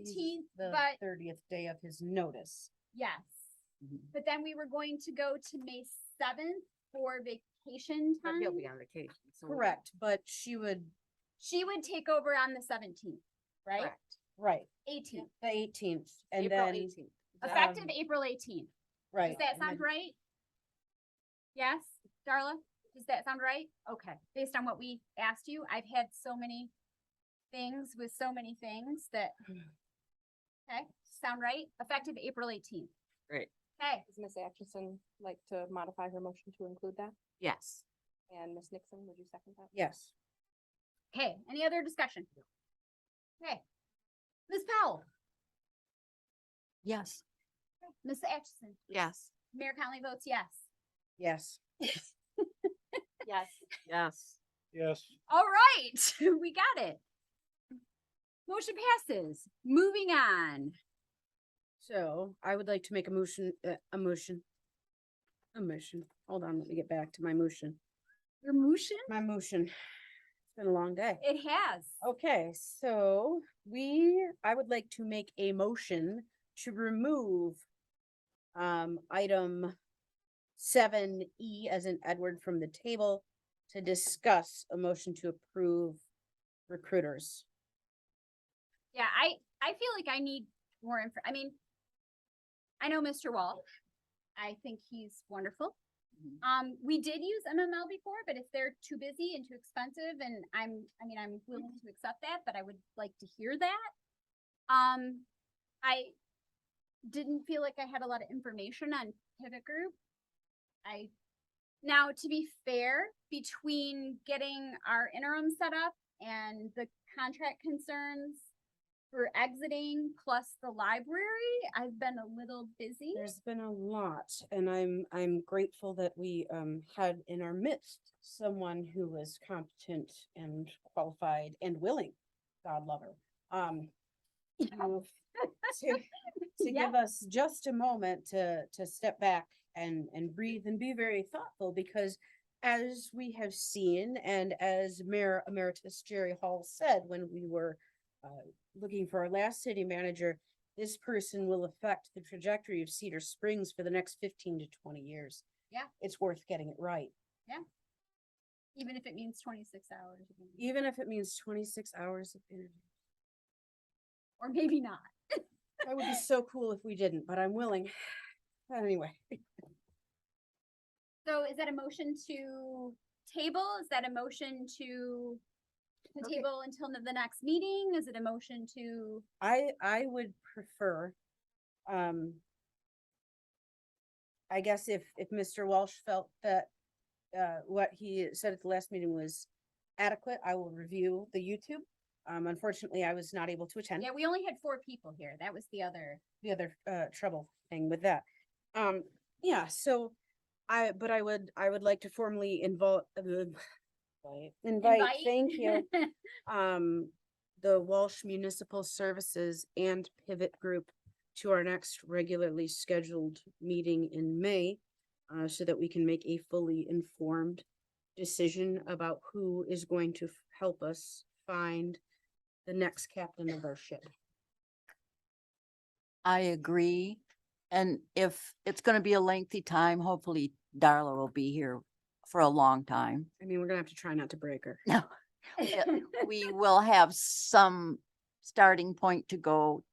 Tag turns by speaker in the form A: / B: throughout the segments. A: seventeenth,
B: the
A: but
B: thirtieth day of his notice.
A: yes.
C: Mhm.
A: But then we were going to go to May seventh for vacation
C: But
A: time.
C: he'll be on vacation. so we-
B: Um, Correct, but she would,
A: She would take over on the seventeenth, right?
C: Correct.
B: right,
A: Eighteenth,
B: the eighteenth and
C: April
B: then,
C: eighteenth.
A: effective
B: Um,
A: April eighteenth.
B: right.
A: Does that
B: and
A: sound
B: then-
A: right? Yes, Darla? Does that sound right? Okay, based on what we asked you, I've had so many things with so many things that. Okay, sound right? Effective April eighteenth.
C: Great.
A: Okay,
D: Does Ms. Atchison like to modify her motion to include that?
C: Yes.
D: And Ms. Nixon, would you second that?
B: Yes,
A: okay, any other discussion? Okay. Ms. Powell,
C: Yes.
A: Ms. Atchison,
C: Yes.
A: Mayor Conley votes yes.
B: yes.
D: Yes.
C: Yes.
E: Yes,
A: All right, we got it. Motion passes. Moving on.
B: So I would like to make a motion, uh, a motion. A motion. Hold on, let me get back to my motion.
A: Your motion?
B: My motion. It's been a long day.
A: It has.
B: Okay, so we, I would like to make a motion to remove um, item seven E as in Edward from the table to discuss a motion to approve recruiters.
A: Yeah, I, I feel like I need more info. I mean, I know Mr. Wall. I think he's wonderful.
C: Mhm.
A: Um, we did use MML before, but if they're too busy and too expensive and I'm, I mean, I'm willing to accept that, but I would like to hear that. Um, I didn't feel like I had a lot of information on pivot group. I, now to be fair, between getting our interim set up and the contract concerns for exiting plus the library, I've been a little busy.
B: There's been a lot and I'm, I'm grateful that we um, had in our midst someone who was competent and qualified and willing, God love her. Um, to- to- to
A: Yeah.
B: give us just a moment to, to step back and, and breathe and be very thoughtful because as we have seen, and as Mayor Emeritus Jerry Hall said when we were uh, looking for our last city manager, this person will affect the trajectory of Cedar Springs for the next fifteen to twenty years.
A: Yeah.
B: It's worth getting it right,
A: Even if it means twenty-six hours, a week,
B: even if it means twenty-six hours of interview.
A: or maybe not.
B: That would be so cool if we didn't, but I'm willing. Anyway,
A: So is that a motion to table? Is that a motion to the
B: Okay.
A: table until the next meeting? Is it a motion to,
B: I, I would prefer, um, I guess if, if Mr. Walsh felt that, uh, what he said at the last meeting was adequate, I will review the YouTube. Um, unfortunately, I was not able to attend.
A: yeah, we only had four people here. That was the other.
B: the other uh trouble thing with that. Um, yeah, so I, but I would, I would like to formally involve invite,
A: invite.
B: thank you, um, the Walsh Municipal Services and Pivot Group to our next regularly scheduled meeting in May, uh, so that we can make a fully informed decision about who is going to f- help us find the next captain of our ship.
F: I agree. And if it's gonna be a lengthy time, hopefully Darla will be here for a long time.
B: I mean, we're gonna have to try not to break her.
F: We will have some starting point to go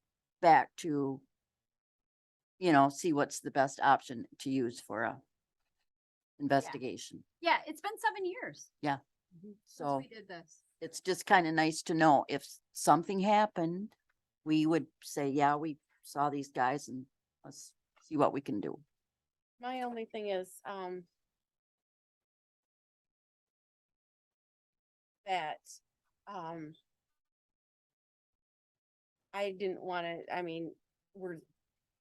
F: back to, you know, see what's the best option to use for a investigation.
A: Yeah, it's been seven years since
F: So
A: we did this.
F: it's just kind of nice to know if something happened, we would say, yeah, we saw these guys and let's see what we can do.
B: My only thing is, um, that, um, I didn't wanna, I mean, we're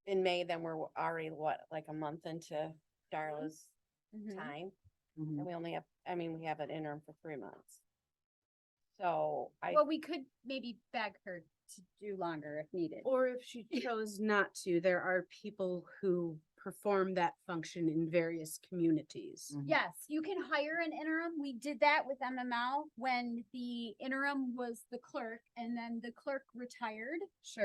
B: in May, then we're already what, like a month into Darla's
A: Mhm.
B: time?
F: Mhm.
B: And we only have, I mean, we have an interim for three months. So I,
A: Well, we could maybe beg her to do longer if needed.
B: or if she chose not to, there are people who perform that function in various communities.
F: Mhm.
A: Yes, you can hire an interim. We did that with MML when the interim was the clerk and then the clerk retired.
B: Sure.